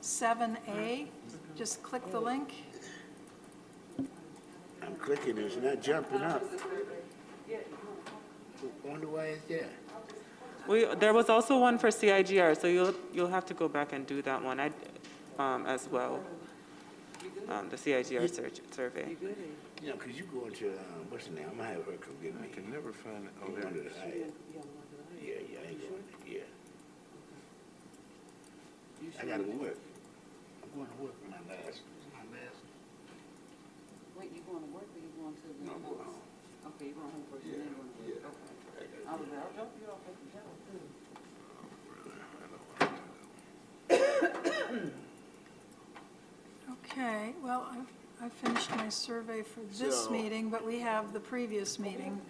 Seven A, just click the link. I'm clicking, it's not jumping up. Wonder why it's there. We, there was also one for CIGR, so you'll, you'll have to go back and do that one I- um, as well, Um, the CIGR search, survey. You know, 'cause you go into, uh, what's the name, I'm gonna have her come get me. I can never find it. Oh, You there it wonder, is. I- Yeah, yeah, I ain't going, yeah. I gotta go work. I'm going to work for my last, my last, Wait, you going to work or you going to? the- no, I'm going home. Okay, you going home first and then you going to work, okay. I was like, I'll drop you off at the job too. Okay, well, I- I finished my survey for this So- meeting, but we have the previous meeting.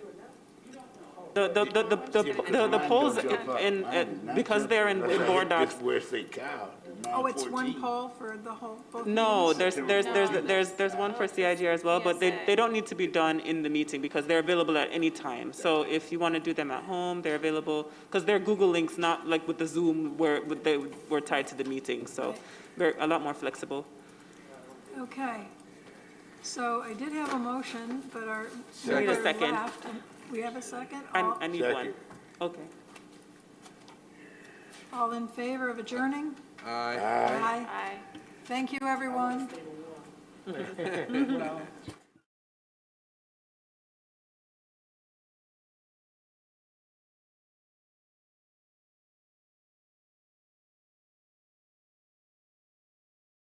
The, the, the, the- Yeah, because the, the mine polls don't jump up. in, Mine is in- not because they're in jumping up. in board docs, That's where it say cow. Oh, it's one 914. poll for the whole, both no, meetings? there's, there's, there's, there's, there's one for CIGR as well, but they, they don't need to be done in the meeting because they're available at any time. So if you want to do them at home, they're available, because they're Google links, not like with the Zoom where, with they were tied to the meeting, so they're a lot more flexible. Okay. So I did have a motion, but our. We need a member second. left. We have a second? I, All- I need one. Second. Okay. All in favor of adjourning? Aye. Ah, Aye. Thank you, everyone.